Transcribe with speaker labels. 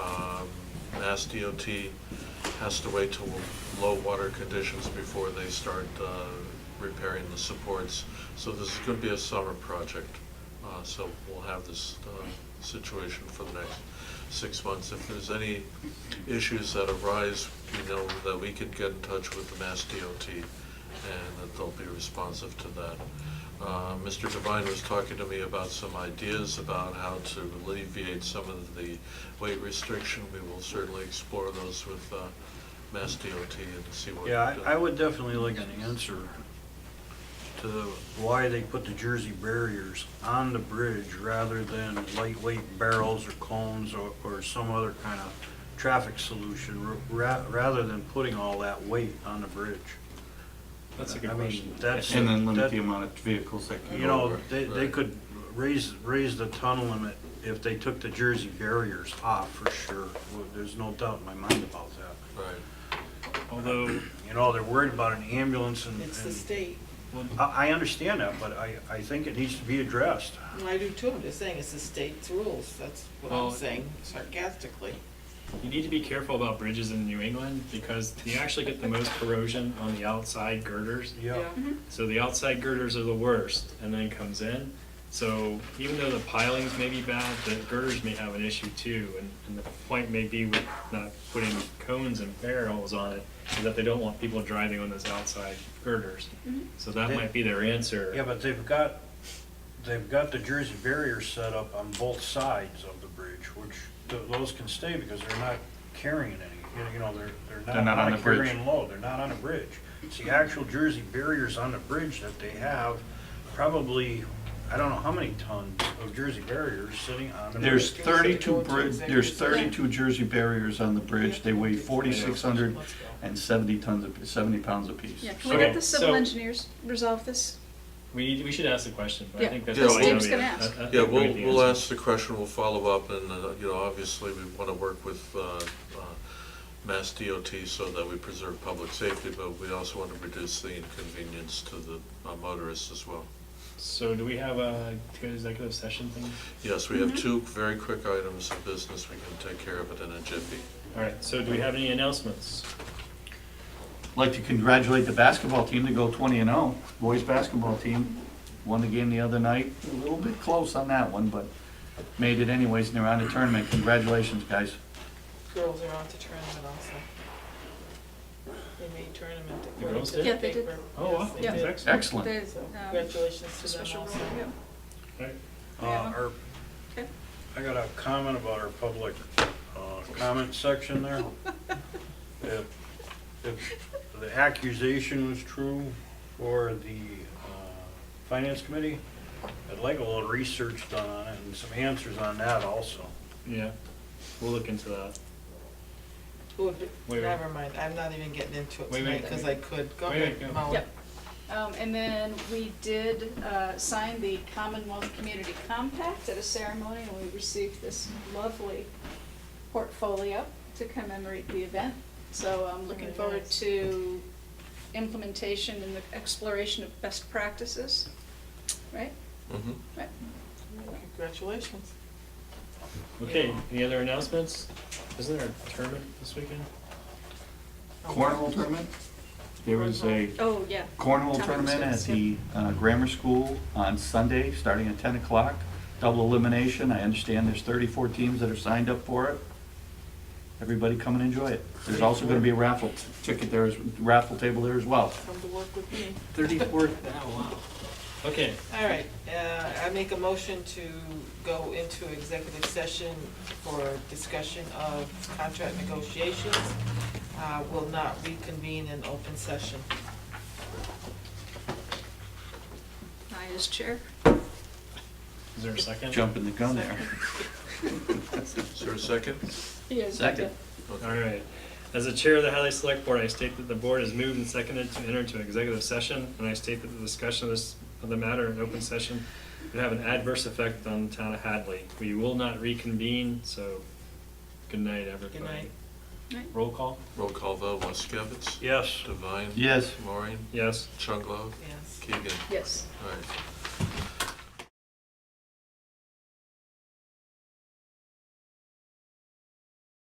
Speaker 1: Uh, Mass DOT has to wait till low water conditions before they start uh, repairing the supports. So this is going to be a summer project, Uh, so we'll have this uh, situation for the next six months. If there's any issues that arise, we know that we can get in touch with the Mass DOT and that they'll be responsive to that. Uh, Mr. Devine was talking to me about some ideas about how to alleviate some of the weight restriction. We will certainly explore those with uh, Mass DOT and see what.
Speaker 2: Yeah, I, I
Speaker 1: uh,
Speaker 2: would definitely like an answer to why they put the Jersey barriers on the bridge rather than lightweight barrels or cones or, or some other kind of traffic solution, ra- rather than putting all that weight on the bridge.
Speaker 3: That's a
Speaker 2: I
Speaker 3: good
Speaker 2: mean,
Speaker 3: question.
Speaker 2: that's-
Speaker 3: And then limit
Speaker 2: that-
Speaker 3: the amount of vehicles that can
Speaker 2: You
Speaker 3: go
Speaker 2: know,
Speaker 3: over.
Speaker 2: they, they
Speaker 1: Right.
Speaker 2: could raise, raise the ton limit if they took the Jersey barriers off, for sure. Well, There's no doubt in my mind about that.
Speaker 1: Right.
Speaker 3: Although,
Speaker 2: You know, they're worried about an ambulance and.
Speaker 4: It's the
Speaker 2: and-
Speaker 4: state.
Speaker 2: I, I understand that, but I, I think it needs to be addressed.
Speaker 4: And I do too, I'm just saying, it's the state's rules, that's what I'm
Speaker 3: Well-
Speaker 4: saying sarcastically.
Speaker 3: you need to be careful about bridges in New England because you actually get the most corrosion on the outside girders. So the outside girders are the worst and then it comes in. So even though the pilings may be bad, the girders may have an issue too. And, and the point may be with not putting cones and barrels on it is that they don't want people driving on those outside girders. So that
Speaker 2: They-
Speaker 3: might be their answer.
Speaker 2: Yeah, but they've got, they've got the Jersey barrier set up on both sides of the bridge, which th- those can stay because they're not carrying any, you know, you know, they're, they're not on a
Speaker 3: bridge.
Speaker 2: carrying load, they're not on a bridge. It's the actual Jersey barriers on the bridge that they have, probably, I don't know how many tons of Jersey barriers sitting on the bridge.
Speaker 5: There's
Speaker 4: Can we
Speaker 5: thirty-two
Speaker 4: go to
Speaker 5: bridge,
Speaker 4: executive
Speaker 5: there's
Speaker 4: session?
Speaker 5: thirty-two Jersey barriers on the bridge, they weigh forty-six hundred
Speaker 4: Let's go.
Speaker 5: and seventy tons, of- seventy pounds apiece.
Speaker 6: Yeah, can we get
Speaker 3: Okay,
Speaker 6: the civil
Speaker 3: so-
Speaker 6: engineers resolve this?
Speaker 3: We need, we should ask the question, but I
Speaker 6: Yeah.
Speaker 3: think that's.
Speaker 1: Yeah,
Speaker 3: probably
Speaker 1: Steve's
Speaker 3: gonna be
Speaker 6: gonna
Speaker 3: a-
Speaker 6: ask.
Speaker 3: a- a-
Speaker 1: Yeah,
Speaker 3: probably
Speaker 1: we'll,
Speaker 3: the
Speaker 1: we'll
Speaker 3: answer.
Speaker 1: ask the question, we'll follow up, and, uh, you know, obviously, we want to work with uh, uh, Mass DOT so that we preserve public safety, but we also want to reduce the inconvenience to the uh, motorists as well.
Speaker 3: So do we have a good executive session thing?
Speaker 1: Yes, we have two very quick items of business, we can take care of it in a jiffy.
Speaker 3: All right, so do we have any announcements?
Speaker 5: I'd Like to congratulate the basketball team to go twenty and oh, boys' basketball team, won the game the other night, a little bit close on that one, but made it anyways, and they're on the tournament, congratulations, guys.
Speaker 4: Girls are on to tournament also. They made tournament.
Speaker 3: The girls
Speaker 4: according to
Speaker 6: did?
Speaker 4: the
Speaker 6: Yeah, they did.
Speaker 4: paper.
Speaker 3: Oh, wow.
Speaker 4: Yes, they
Speaker 6: Yeah.
Speaker 4: did.
Speaker 3: Excellent.
Speaker 5: Excellent,
Speaker 6: The,
Speaker 4: So
Speaker 6: um,
Speaker 4: congratulations to them
Speaker 6: special
Speaker 4: also.
Speaker 6: role, yeah.
Speaker 3: All right.
Speaker 2: Uh,
Speaker 6: Yeah.
Speaker 2: our-
Speaker 6: Okay.
Speaker 2: I got a comment about our public uh, comment section there. If, if the accusation was true for the uh, finance committee, I'd like a little research done on it and some answers on that also.
Speaker 3: Yeah, we'll look into that.
Speaker 4: Who would be-
Speaker 3: Wait, wait.
Speaker 4: Never mind, I'm not even getting into it
Speaker 3: Wait, wait,
Speaker 4: tonight, because I
Speaker 3: wait.
Speaker 4: could. Go
Speaker 3: Wait, wait,
Speaker 4: ahead,
Speaker 3: go.
Speaker 4: Molly.
Speaker 6: Yep. Um, and then we did, uh, sign the Commonwealth Community Compact at a ceremony, and we received this lovely portfolio to commemorate the event. So I'm looking
Speaker 4: Very
Speaker 6: forward
Speaker 4: nice.
Speaker 6: to implementation and the exploration of best practices, right?
Speaker 1: Mhm.
Speaker 6: Right.
Speaker 4: Congratulations.
Speaker 3: Okay, any other announcements? Isn't there a tournament this weekend?
Speaker 5: cornhole tournament, there is a
Speaker 6: Oh, yeah.
Speaker 5: cornhole tournament at the uh, grammar school on Sunday, starting at ten o'clock. Double elimination, I understand there's thirty-four teams that are signed up for it. Everybody come and enjoy it. There's also gonna be a raffle ticket there, as- raffle table there as well.
Speaker 4: Come to work with me.
Speaker 3: Thirty-four, wow. Okay,
Speaker 4: All right, uh, I make a motion to go into executive session for discussion of contract negotiations. Uh, Will not reconvene in open session.
Speaker 6: I as chair.
Speaker 3: is there a second?
Speaker 5: Jumping the gun there.
Speaker 1: Is there a second?
Speaker 6: Yes.
Speaker 5: Second.
Speaker 3: All right. As the chair of the Highly Select Board, I state that the board is moved and seconded to enter into an executive session, and I state that the discussion of this, of the matter in open session would have an adverse effect on the town of Hadley. We will not reconvene, so good night, everybody.
Speaker 4: Good night.
Speaker 3: Roll call?
Speaker 1: Roll call vote, Waskevitz?
Speaker 2: Yes.
Speaker 1: Devine?
Speaker 5: Yes.
Speaker 1: Maureen?
Speaker 3: Yes.
Speaker 1: Chunglo?
Speaker 4: Yes.
Speaker 1: Keegan?
Speaker 6: Yes.
Speaker 1: All right.